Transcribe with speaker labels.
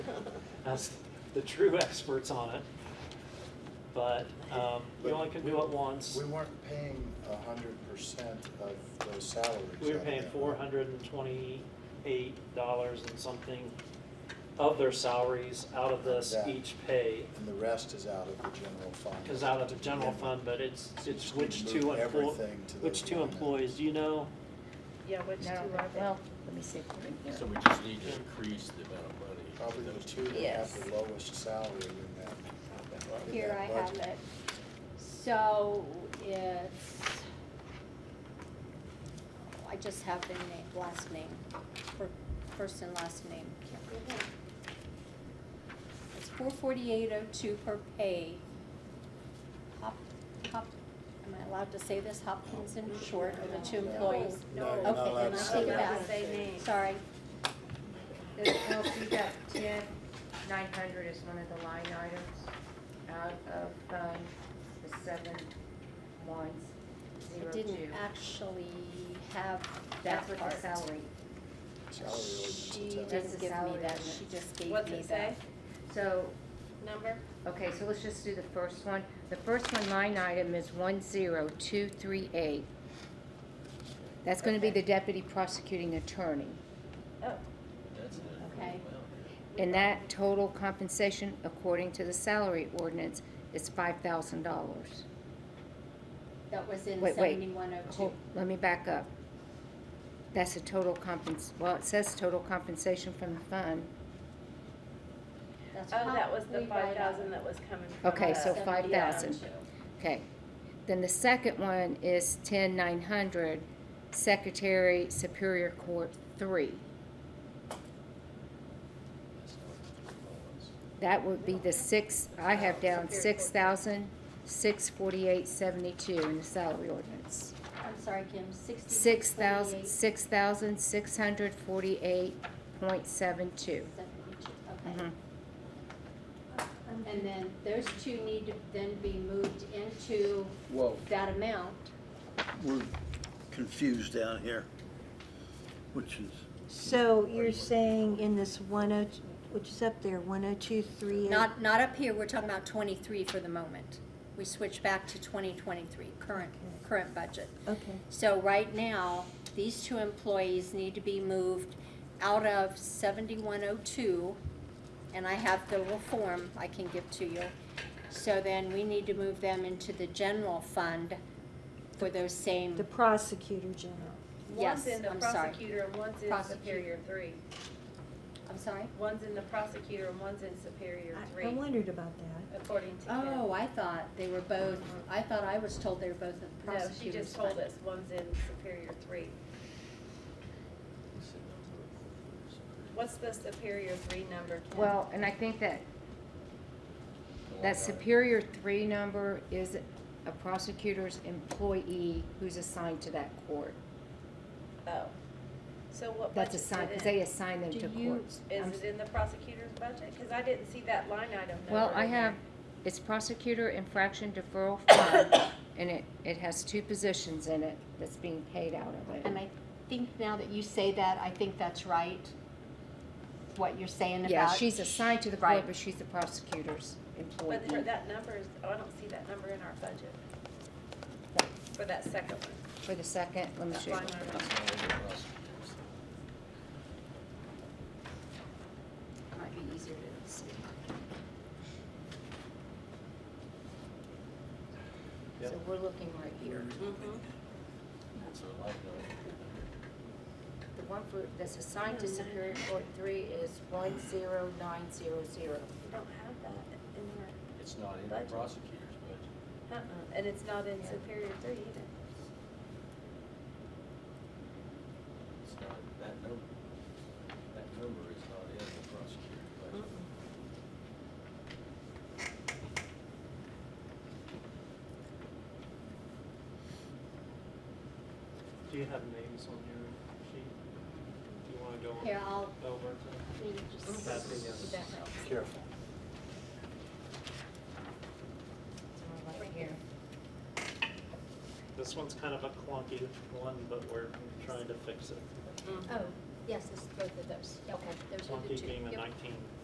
Speaker 1: as the true experts on it. But um, you only can do it once.
Speaker 2: We weren't paying a hundred percent of those salaries.
Speaker 1: We were
Speaker 2: I
Speaker 1: paying
Speaker 2: think.
Speaker 1: four hundred and twenty-eight dollars and something of their salaries out of this
Speaker 2: Yeah.
Speaker 1: each pay.
Speaker 2: And the rest is out of the general fund.
Speaker 1: Cause out of the general fund, but it's, it's
Speaker 2: Just
Speaker 1: which
Speaker 2: move
Speaker 1: two employees,
Speaker 2: everything to
Speaker 1: which
Speaker 2: those
Speaker 1: two
Speaker 2: line items.
Speaker 1: employees, do you know?
Speaker 3: Yeah, which two
Speaker 4: I
Speaker 3: are
Speaker 4: don't know.
Speaker 3: they?
Speaker 4: Well, let me see if they're in here.
Speaker 5: So we just need to increase the amount of money.
Speaker 2: Probably the two that
Speaker 4: Yes.
Speaker 2: have the lowest salary in that. in
Speaker 6: Here
Speaker 2: that
Speaker 6: I have
Speaker 2: budget.
Speaker 6: it. So it's, I just have the name, last name, fir- first and last name. Can't read it. It's four forty-eight oh two per pay. Hop, hop, am I allowed to say this? Hopkins and Short are the two
Speaker 2: No.
Speaker 6: employees.
Speaker 2: No, you're
Speaker 6: Okay,
Speaker 2: not allowed
Speaker 6: then
Speaker 2: to
Speaker 6: I
Speaker 2: say
Speaker 6: take it
Speaker 2: that.
Speaker 6: back.
Speaker 3: Say name.
Speaker 6: Sorry.
Speaker 3: The LP got ten, nine hundred is one of the line items out of, um, the seven ones,
Speaker 6: I
Speaker 3: zero two.
Speaker 6: didn't actually have
Speaker 3: That's
Speaker 6: that part.
Speaker 3: with the salary.
Speaker 2: Salary ordinance
Speaker 6: She
Speaker 2: will tell you.
Speaker 3: That's
Speaker 6: didn't
Speaker 3: the
Speaker 6: give me
Speaker 3: salary
Speaker 6: that,
Speaker 3: ordinance.
Speaker 6: she just gave me that.
Speaker 7: What's it say?
Speaker 3: So,
Speaker 7: Number?
Speaker 3: okay, so let's just do the first one. The first one line item is one zero two three eight. That's gonna be the deputy prosecuting attorney.
Speaker 7: Oh,
Speaker 5: That's an increase.
Speaker 6: Okay.
Speaker 3: And that total compensation, according to the salary ordinance, is five thousand dollars.
Speaker 6: That was in
Speaker 3: Wait, wait.
Speaker 6: seventy-one oh two.
Speaker 3: Hold, let me back up. That's a total compens, well, it says total compensation from the fund.
Speaker 6: Oh,
Speaker 7: that was the five thousand that was coming from.
Speaker 3: Okay,
Speaker 7: the-
Speaker 3: so
Speaker 6: Seventy
Speaker 3: five thousand. Okay. Then the second one is ten nine hundred, Secretary Superior Court three.
Speaker 5: That's not what it was.
Speaker 3: That would be the six, I have down six thousand, six forty-eight seventy-two in the salary ordinance.
Speaker 6: I'm sorry, Kim, sixty.
Speaker 3: Six thousand, six thousand, six hundred forty-eight point seven two. Mm-hmm.
Speaker 6: Okay. And then those two need to then be moved into
Speaker 8: Whoa,
Speaker 6: that amount.
Speaker 8: we're confused down here, which is,
Speaker 4: So you're saying in this one oh, which is up there, one oh two three eight?
Speaker 6: Not, not up here, we're talking about twenty-three for the moment. We switch back to twenty twenty-three, current, current budget.
Speaker 4: Okay,
Speaker 6: So right now, these two employees need to be moved out of seventy-one oh two, and I have the little form I can give to you. So then we need to move them into the general fund for those same,
Speaker 4: the prosecutor general.
Speaker 6: Yes,
Speaker 7: One's in the
Speaker 6: I'm sorry.
Speaker 7: prosecutor and one's in
Speaker 6: Prosecutor.
Speaker 7: Superior Three.
Speaker 6: I'm sorry?
Speaker 7: One's in the prosecutor and one's in Superior
Speaker 4: I, I
Speaker 7: Three,
Speaker 4: wondered about that.
Speaker 7: according to Kim.
Speaker 6: Oh, I thought they were both, I thought I was told they were both in the
Speaker 7: No, she
Speaker 6: prosecutor's
Speaker 7: just told
Speaker 6: fund.
Speaker 7: us one's in Superior Three.
Speaker 5: It's a number of workers.
Speaker 7: What's the Superior Three number? Kim?
Speaker 3: Well, and I think that
Speaker 5: The line
Speaker 3: That
Speaker 5: item.
Speaker 3: Superior Three number is a prosecutor's employee who's assigned to that court.
Speaker 7: Oh. So what
Speaker 3: That's
Speaker 7: budget is
Speaker 3: assigned, because
Speaker 7: it
Speaker 3: they
Speaker 7: in?
Speaker 3: assign them
Speaker 6: Do
Speaker 3: to
Speaker 6: you-
Speaker 3: courts. I'm
Speaker 7: Is it in the prosecutor's budget? Because I didn't see that line item number.
Speaker 3: Well, I
Speaker 7: in there.
Speaker 3: have, it's prosecutor infraction deferral fund, and it, it has two positions in it that's being paid out of
Speaker 6: And
Speaker 3: it.
Speaker 6: I think now that you say that, I think that's right, what you're saying about.
Speaker 3: Yeah, she's assigned to the court,
Speaker 6: Right.
Speaker 3: but she's the prosecutor's employee.
Speaker 7: But for that number is, oh, I don't see that number in our budget. For that second one.
Speaker 3: For the second, let me
Speaker 7: that
Speaker 3: show you.
Speaker 7: line item.
Speaker 5: It's not in the prosecutor's.
Speaker 3: Might be easier to see. So we're looking right here.
Speaker 7: Mm-hmm.
Speaker 5: It's a line item.
Speaker 3: The one for, that's assigned to Superior Court Three is one zero nine zero zero.
Speaker 7: We don't have that in
Speaker 5: It's not in
Speaker 7: Budget.
Speaker 5: the prosecutor's budget.
Speaker 7: our, uh-uh, and it's not in Superior Three either.
Speaker 5: It's not, that number, that number is not in the prosecutor's budget.
Speaker 1: Do you have names on your sheet? Do you wanna go
Speaker 6: Here, I'll,
Speaker 1: over to
Speaker 6: let me just-
Speaker 1: Kathy? Yes.
Speaker 7: That helps.
Speaker 2: Careful.
Speaker 3: Right here.
Speaker 1: This one's kind of a clunky one, but we're trying to fix it.
Speaker 6: Oh, yes, it's both of those. Okay, those are the
Speaker 1: Clunky
Speaker 6: two.
Speaker 1: being the
Speaker 6: Yep.
Speaker 1: nineteen